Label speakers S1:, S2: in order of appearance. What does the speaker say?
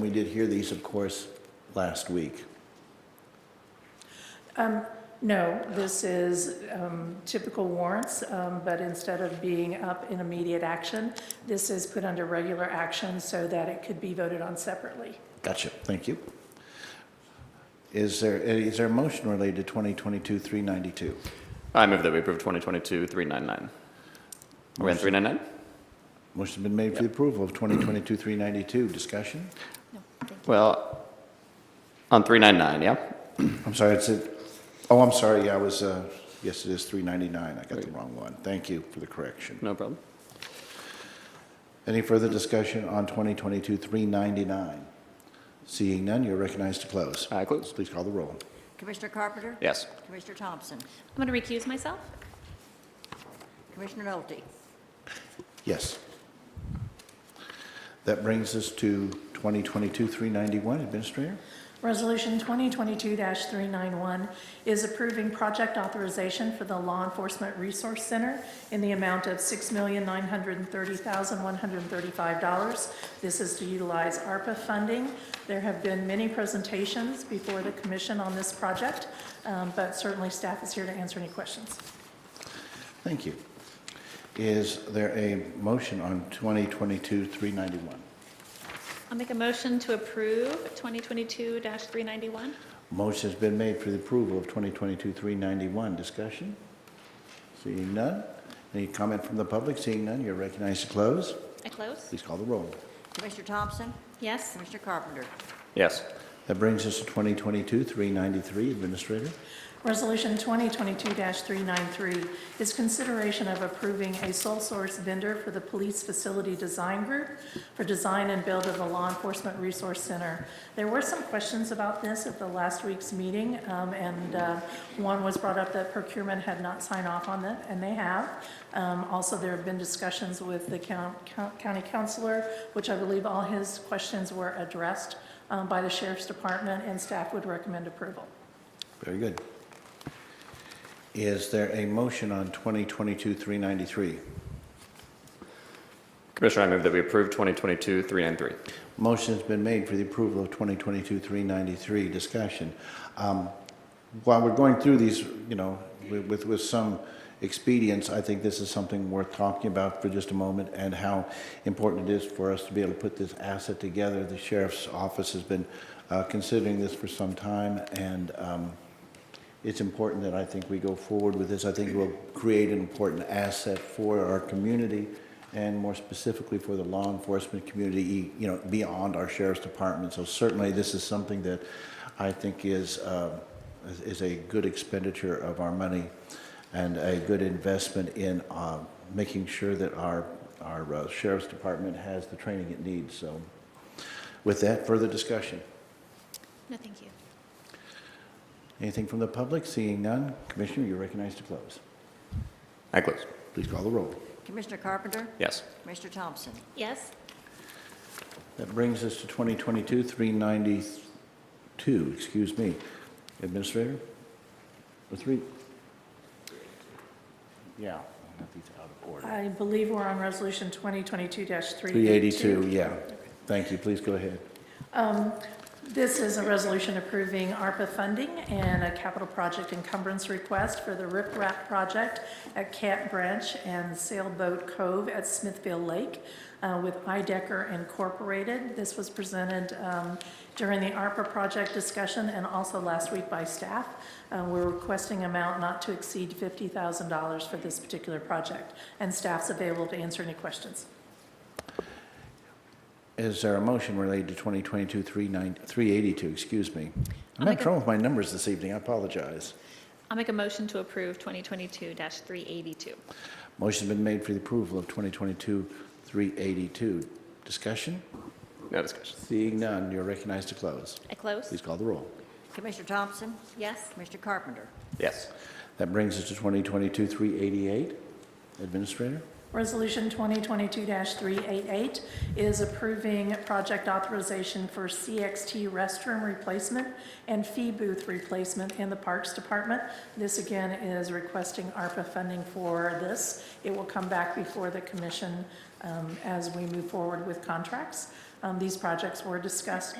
S1: We did hear these, of course, last week.
S2: No, this is um, typical warrants, um, but instead of being up in immediate action, this is put under regular action so that it could be voted on separately.
S1: Gotcha, thank you. Is there, is there a motion related to 2022-392?
S3: I move that we approve 2022-399. Are we on 399?
S1: Motion's been made for the approval of 2022-392. Discussion?
S3: Well, on 399, yeah?
S1: I'm sorry, it's a, oh, I'm sorry, yeah, I was, uh, yes, it is 399. I got the wrong one. Thank you for the correction.
S3: No problem.
S1: Any further discussion on 2022-399? Seeing none, you're recognized to close.
S3: I close.
S1: Please call the roll.
S4: Commissioner Carpenter?
S3: Yes.
S4: Commissioner Thompson?
S5: I'm going to recuse myself.
S4: Commissioner Nolte?
S1: Yes. That brings us to 2022-391, Administrator.
S2: Resolution 2022-391 is approving project authorization for the Law Enforcement Resource Center in the amount of $6,930,135. This is to utilize ARPA funding. There have been many presentations before the commission on this project, um, but certainly staff is here to answer any questions.
S1: Thank you. Is there a motion on 2022-391?
S5: I'll make a motion to approve 2022-391.
S1: Motion's been made for the approval of 2022-391. Discussion? Seeing none. Any comment from the public? Seeing none, you're recognized to close.
S5: I close?
S1: Please call the roll.
S4: Commissioner Thompson?
S5: Yes.
S4: Commissioner Carpenter?
S3: Yes.
S1: That brings us to 2022-393, Administrator.
S2: Resolution 2022-393 is consideration of approving a sole source vendor for the Police Facility Design Group for design and build of the Law Enforcement Resource Center. There were some questions about this at the last week's meeting, um, and uh, one was brought up that procurement had not signed off on that, and they have. Um, Also, there have been discussions with the coun- coun- county counselor, which I believe all his questions were addressed um, by the Sheriff's Department, and staff would recommend approval.
S1: Very good. Is there a motion on 2022-393?
S3: Commissioner, I move that we approve 2022-393.
S1: Motion's been made for the approval of 2022-393. Discussion. Um, While we're going through these, you know, wi- with, with some expedience, I think this is something worth talking about for just a moment and how important it is for us to be able to put this asset together. The sheriff's office has been uh, considering this for some time, and um, it's important that I think we go forward with this. I think it will create an important asset for our community and more specifically for the law enforcement community, e, you know, beyond our sheriff's department. So certainly, this is something that I think is, um, is- is a good expenditure of our money and a good investment in uh, making sure that our, our uh, sheriff's department has the training it needs. So with that, further discussion.
S5: No, thank you.
S1: Anything from the public? Seeing none, Commissioner, you're recognized to close.
S3: I close.
S1: Please call the roll.
S4: Commissioner Carpenter?
S3: Yes.
S4: Commissioner Thompson?
S5: Yes.
S1: That brings us to 2022-392, excuse me. Administrator? The three? Yeah, I got these out of order.
S2: I believe we're on Resolution 2022-382.
S1: 382, yeah. Thank you, please go ahead.
S2: This is a resolution approving ARPA funding and a capital project encumbrance request for the Rip Rap project at Cat Branch and Sailboat Cove at Smithfield Lake uh, with IDECR Incorporated. This was presented um, during the ARPA project discussion and also last week by staff. Uh, We're requesting amount not to exceed $50,000 for this particular project, and staff's available to answer any questions.
S1: Is there a motion related to 2022-382, excuse me? I'm
S5: I'll
S1: having
S5: make a-
S1: trouble with my numbers this evening, I apologize.
S5: I'll make a motion to approve 2022-382.
S1: Motion's been made for the approval of 2022-382. Discussion?
S3: No discussion.
S1: Seeing none, you're recognized to close.
S5: I close?
S1: Please call the roll.
S4: Commissioner Thompson?
S5: Yes.
S4: Commissioner Carpenter?
S3: Yes.
S1: That brings us to 2022-388. Administrator?
S2: Resolution 2022-388 is approving project authorization for CXT restroom replacement and fee booth replacement in the Parks Department. This again is requesting ARPA funding for this. It will come back before the commission um, as we move forward with contracts. Um, These projects were discussed